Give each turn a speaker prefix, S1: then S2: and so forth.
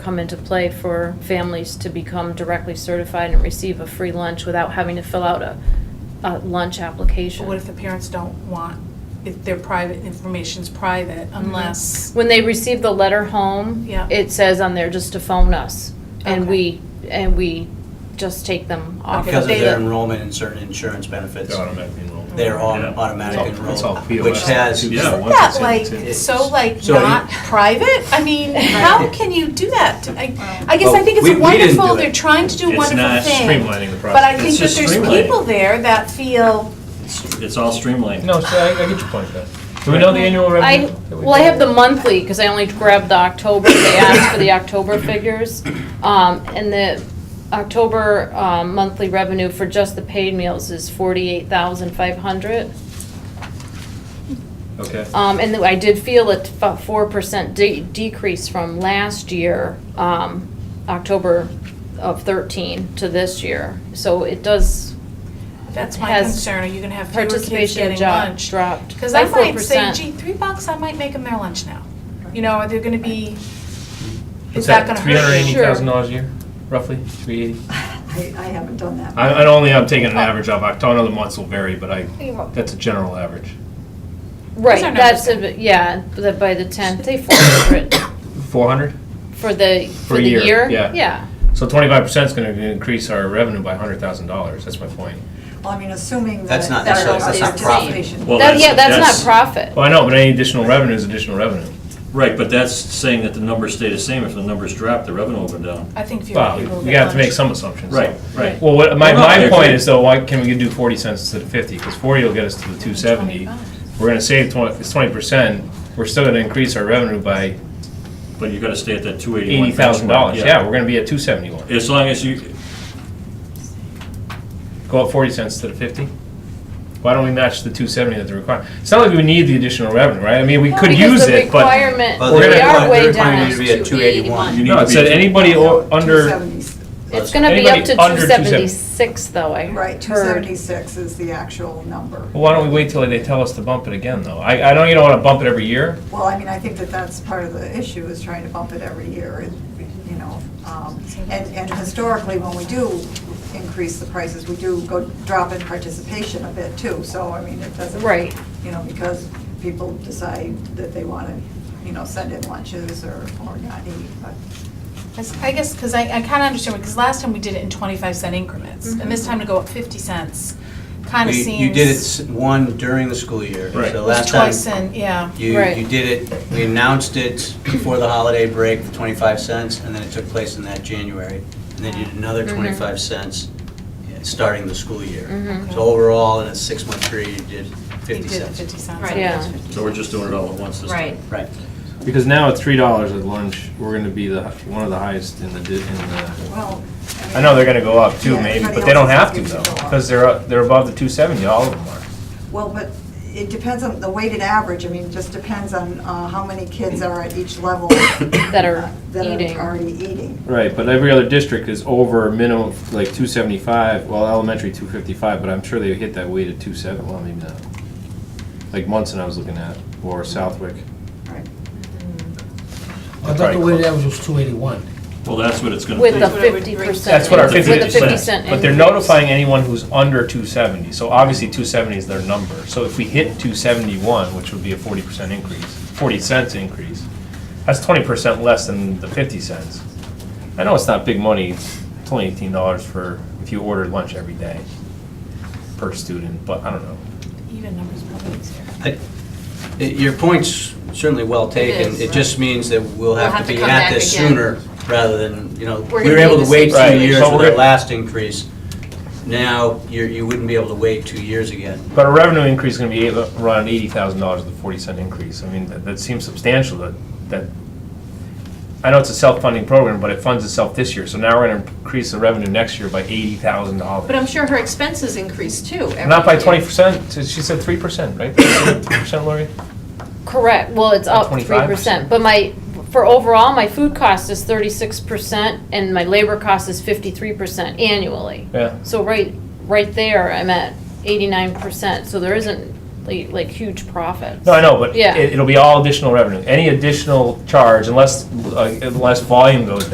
S1: come into play for families to become directly certified and receive a free lunch without having to fill out a, a lunch application.
S2: But what if the parents don't want, if their private information's private, unless,
S1: When they receive the letter home,
S2: Yeah.
S1: it says on there just to phone us, and
S2: Okay.
S1: we, and we just take them off.
S2: Okay,
S3: Because of
S2: they-
S3: their enrollment in certain insurance benefits,
S4: They're automatically enrolled.
S3: they're on
S4: Yeah.
S3: automatic
S4: It's all- it's all
S3: enrollment,
S4: POS.
S3: which has.
S4: Yeah,
S2: isn't
S4: once
S2: that
S4: it's in,
S2: like,
S4: it's in.
S2: so like
S3: So you-
S2: not private? I mean, how can you do that? I, I guess I think it's
S3: Well, we- we didn't do
S2: wonderful,
S3: it.
S2: they're trying to do
S4: It's
S2: wonderful
S4: not
S2: things.
S4: streamlining the
S2: But I
S4: process.
S2: think
S4: It's
S2: that
S4: just
S2: there's
S4: streamlining.
S2: people there that feel,
S4: It's all streamlined.
S5: No, so I, I get your point, Beth. Do we know the annual revenue?
S1: I, well, I have the monthly, because I only grabbed the October, they asked for the October figures. Um, and the October, um, monthly revenue for just the paid meals is forty-eight thousand five hundred.
S4: Okay.
S1: Um, and I did feel a four percent de- decrease from last year, um, October of thirteen to this year. So it does,
S2: that's my
S1: Has
S2: concern, are you gonna have fewer kids
S1: participation in
S2: getting
S1: job
S2: lunch?
S1: dropped
S2: Because
S1: by
S2: I
S1: four
S2: might say,
S1: percent.
S2: gee, three bucks, I might make them their lunch now. You know, are they gonna be, is
S5: What's
S2: that gonna
S5: Three hundred
S2: hurt?
S5: eighty thousand dollars a year, roughly, three eighty?
S6: I, I haven't done that.
S4: I, I only, I'm taking an average of, I know the months will vary, but I, that's a general average.
S2: Those are
S1: right, that's,
S2: numbers.
S1: a- yeah, that by the tenth, they four hundred
S4: Four hundred?
S1: for the, for
S4: a
S1: the
S4: year,
S1: year?
S4: yeah.
S1: Yeah.
S4: So twenty-five percent is gonna increase our revenue by hundred thousand dollars, that's my point.
S6: Well, I mean, assuming that.
S3: That's not
S6: that
S3: necessarily-
S1: that's not
S6: is
S1: profit.
S6: participation.
S7: Well,
S1: That,
S7: that's-
S1: yeah, that's
S7: that's-
S1: not profit.
S4: Well, I know, but any additional revenue is additional revenue.
S7: Right, but that's saying that the numbers stay the same. If the numbers drop, the revenue will go down.
S2: I think fewer
S4: Well,
S2: people will
S4: we
S2: get
S4: have to
S2: lunch.
S4: make some assumptions.
S7: Right, right.
S4: Well, what, my,
S7: Well, no, I
S4: my
S7: agree.
S4: point is though, why can we do forty cents instead of fifty? Because forty will get us to the two seventy. We're gonna save twenty, it's twenty percent, we're still gonna increase our revenue by
S7: But you gotta stay at that two eighty-one.
S4: eighty thousand dollars. Yeah, we're gonna be at two seventy-one.
S7: As long as you,
S4: Go up forty cents instead of fifty? Why don't we match the two seventy that they require? It's not like we need the additional revenue, right? I mean, we could
S1: Because
S4: use
S1: the
S4: it, but.
S1: requirement-
S3: But
S4: we're
S1: we
S4: gonna-
S1: are
S3: the
S1: way
S3: requirement
S1: down.
S3: is to be at 281.
S7: you need
S4: No,
S7: to
S4: it
S7: be.
S4: said anybody o-
S6: No,
S4: under,
S6: 270
S1: It's gonna be up to
S4: Anybody under
S1: two
S4: 270.
S1: seventy-six though, I
S6: Right,
S1: heard.
S6: 276 is the actual number.
S4: Well, why don't we wait till they tell us to bump it again though? I, I know you don't wanna bump it every year,
S6: Well, I mean, I think that that's part of the issue, is trying to bump it every year, and, you know. um, And, and historically, when we do increase the prices, we do go, drop in participation a bit too, so, I mean, it doesn't.
S1: Right.
S6: You know, because people decide that they want to, you know, send in lunches or, or not eat, but.
S2: I guess, because I, I kind of understand, because last time we did it in 25 cent increments, and this time to go up 50 cents, kind of
S3: We-
S2: seems.
S3: You did it s- one during the school year,
S4: Right.
S3: so
S2: it was
S3: last time.
S2: Twice in, yeah.
S3: You,
S1: Right.
S3: you did it, we announced it before the holiday break for 25 cents, and then it took place in that January. And then you did another
S2: Mm-hmm.
S3: 25 cents uh, starting the school year.
S1: Mhm.
S3: So overall, in a six-month period, you did
S2: Mm-hmm. You
S3: 50
S2: did
S3: cents.
S2: 50 cents.
S8: Right.
S1: Yeah.
S7: So we're just doing it all at once this time.
S8: Right.
S3: Right.
S4: Because now at three dollars at lunch, we're gonna be the, one of the highest in the, di- in the.
S6: Well,
S4: I know they're gonna go up too,
S6: Yeah,
S4: maybe, but
S6: everybody
S4: they don't
S6: else
S4: have to
S6: is
S4: though,
S6: gonna go up.
S4: because they're, up- they're above the two seventy, all of them are.
S6: Well, but it depends on the weighted average, I mean, it just depends on uh, how many kids are at each level. That
S1: are eating.
S6: already eating.
S4: Right, but every other district is over minimum, like two seventy-five, well, elementary two fifty-five, but I'm sure they hit that weight at two seven, well, maybe not. Like Munson I was looking at, or Southwick.
S6: Right.
S9: I thought the weighted average was two eighty-one.
S7: Well, that's what it's gonna be.
S1: With the fifty percent.
S4: That's what our
S7: With
S4: fifty
S7: the 50
S4: percent, but they're notifying anyone who's under two seventy, so obviously two seventy is their number. So if we hit two seventy-one, which would be a forty percent increase, forty cents increase, that's twenty percent less than the fifty cents. I know it's not big money, it's only eighteen dollars for, if you order lunch every day per student, but I don't know.
S2: Even numbers probably easier.
S3: I- i- Your point's certainly well taken.
S8: is.
S3: It just means that we'll have
S8: have to
S3: to be
S8: come
S3: at
S8: back
S3: this
S8: again.
S3: sooner rather than, you know,
S8: We're
S3: we
S8: gonna
S3: were
S8: be
S3: able
S8: in
S3: to
S8: the same
S3: wait two
S4: Right,
S3: years
S4: so
S3: for
S4: we're-
S3: the last increase. Now, you're, you wouldn't be able to wait two years again.
S4: But our revenue increase is gonna be eight- around eighty thousand dollars with a forty cent increase. I mean, that, that seems substantial, that, that, I know it's a self-funding program, but it funds itself this year, so now we're gonna increase the revenue next year by eighty thousand dollars.
S8: But I'm sure her expenses increased too. every
S4: Not by
S8: year.
S4: twenty percent, she said three percent, right? Three percent, Lori?
S1: Correct, well, it's up three
S4: 25%.
S1: percent, but my, for overall, my food cost is thirty-six percent and my labor cost is fifty-three percent annually.
S4: Yeah.
S1: So right, right there, I'm at eighty-nine percent, so there isn't like, like huge profits.
S4: No, I know, but
S1: Yeah.
S4: it, it'll be all additional revenue. Any additional charge, unless, uh, unless volume goes down.